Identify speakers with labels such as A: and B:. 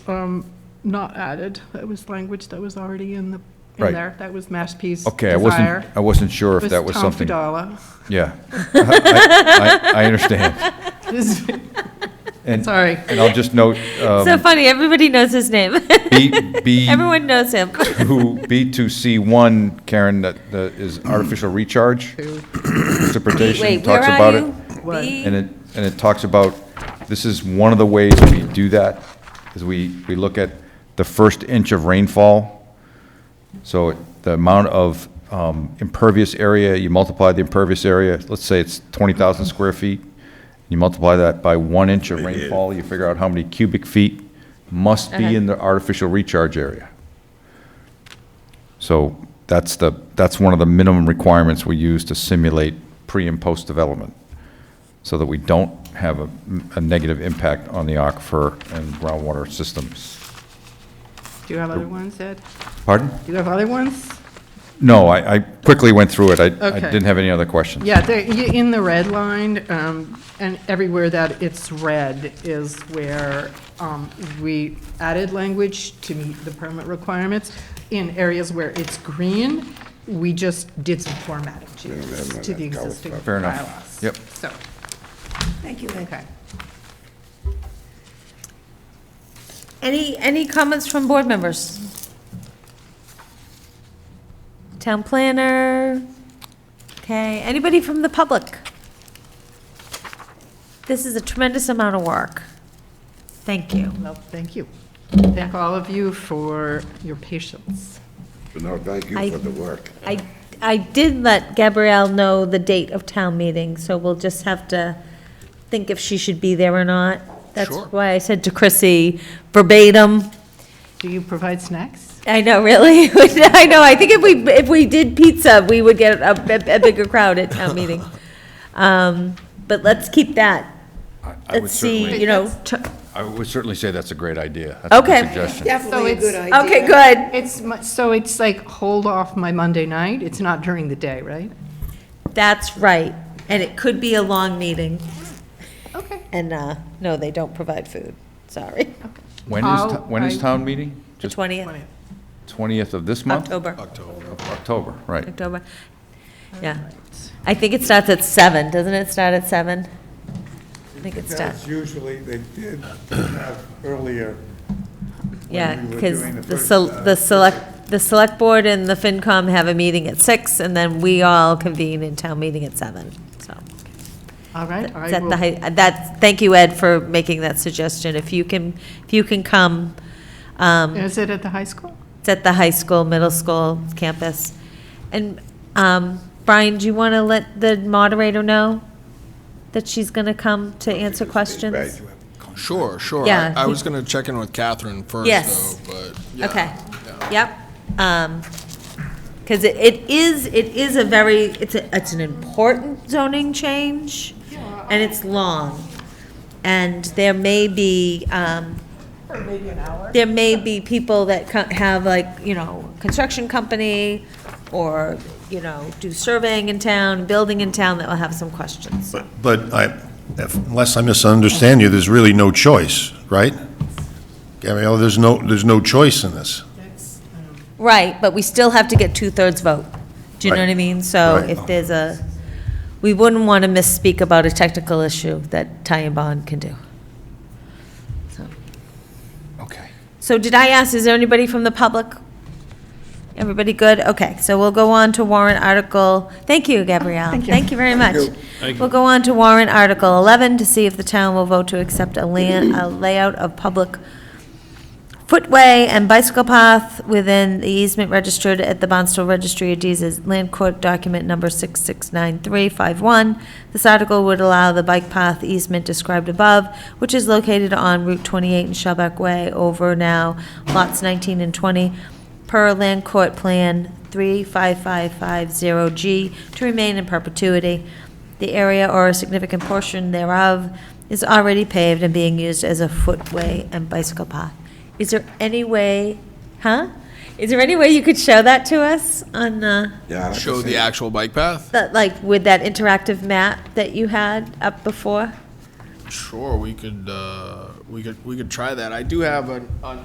A: um, not added. That was language that was already in the,
B: Right.
A: in there. That was Mashpee's
B: Okay, I wasn't,
A: desire.
B: I wasn't sure if
A: Was
B: that was
A: Tom
B: something.
A: Fidala.
B: Yeah. I I- I understand. And,
A: Sorry.
B: and I'll just note, um,
C: So funny, everybody knows his name.
B: B, B.
C: Everyone knows him.
B: Who, B2C1, Karen, that, that is artificial recharge interpretation,
C: Wait, where
B: talks about
C: are
B: it.
C: you?
A: What?
C: B-
B: And it, and it talks about, this is one of the ways we do that, is we, we look at the first inch of rainfall. So the amount of um, impervious area, you multiply the impervious area, let's say it's 20,000 square feet, you multiply that by one inch of rainfall, you figure out how many cubic feet must be in the artificial recharge area. So that's the, that's one of the minimum requirements we use to simulate pre and post development, so that we don't have a, a negative impact on the aquifer and groundwater systems.
A: Do you have other ones, Ed?
B: Pardon?
A: Do you have other ones?
B: No, I, I quickly went through it. I, I
A: Okay.
B: didn't have any other questions.
A: Yeah, they're y- in the red line, um, and everywhere that it's red is where um, we added language to meet the permit requirements. In areas where it's green, we just did some formatting changes to the existing bylaws.
B: Fair enough. Yep.
A: So,
C: Thank you,
A: okay.
C: Any, any comments from board members? Town planner? Okay, anybody from the public? This is a tremendous amount of work. Thank you.
A: Well, thank you. Thank all of you for your patience.
D: No, thank
C: I-
D: you for the work.
C: I, I did let Gabrielle know the date of town meeting, so we'll just have to think if she should be there or not. That's why I said to Chrissy verbatim,
A: Do you provide snacks?
C: I know, really? I know, I think if we, if we did pizza, we would get a, a- a bigger crowd at town meeting. Um, But let's keep that,
B: I- I would
C: let's see,
B: certainly,
C: you know, t-
B: I would certainly say that's a great idea. That's a good
C: Okay.
B: suggestion.
E: Definitely a
A: it's-
E: good idea.
C: okay, good.
A: It's, mu- so it's like hold off my Monday night? It's not during the day, right?
C: That's right, and it could be a long meeting,
A: Okay.
C: and, uh, no, they don't provide food, sorry.
B: When is, to-
A: I'll-
B: when is
A: I-
B: town meeting?
C: The
B: Just
C: 20th,
B: 20th of this month?
C: October.
B: October, right.
C: October. Yeah. I think it starts at seven, doesn't it start at seven? I think it starts,
F: That's usually, they did have earlier.
C: yeah,
F: we were
C: because
F: doing the
C: the,
F: first,
C: sel-
F: uh,
C: the select, the select board and the FinCom have a meeting at six, and then we all convene in town meeting at seven, so.
A: All right. I
C: Is that
A: will-
C: the, hi- that's, thank you, Ed, for making that suggestion. If you can, if you can come, um,
A: Is it at the high school?
C: It's at the high school, middle school campus. And um, Brian, do you want to let the moderator know that she's going to come to answer questions?
D: Right.
G: Sure, sure.
C: Yeah.
G: I I was going to check in with Catherine first,
C: Yes.
G: though, but, yeah.
C: Okay, yep. Because it is, it is a very, it's, a it's an important zoning change, and it's long. And there may be, um, there may be people that co- have like, you know, construction company, or, you know, do surveying in town, building in town, that will have some questions.
H: But I, if- unless I misunderstand you, there's really no choice, right? Gabrielle, there's no, there's no choice in this.
C: Right, but we still have to get two-thirds vote. Do you know what I
H: Right.
C: mean? So
H: Right.
C: if there's a, we wouldn't want to misspeak about a technical issue that Ty and Bond can do. So-
B: Okay.
C: So did I ask, is there anybody from the public? Everybody good? Okay, so we'll go on to warrant article, thank you, Gabrielle. Thank you very much. We'll go on to warrant article 11 to see if the town will vote to accept a land, a layout of public footway and bicycle path within the easement registered at the Bonstable Registry of Deeds as Land Court Document Number 669351. This article would allow the bike path easement described above, which is located on Route 28 and Shellback Way over now lots 19 and 20, per Land Court Plan 35550G, to remain in perpetuity. The area or a significant portion thereof is already paved and being used as a footway and bicycle path. Is there any way, huh? Is there any way you could show that to us on, uh,
D: Yeah, like I
G: Show the
D: said,
G: actual bike path?
C: that, like, with that interactive map that you had up before?
G: Sure, we could, uh, We could, we could try that. I do have an, an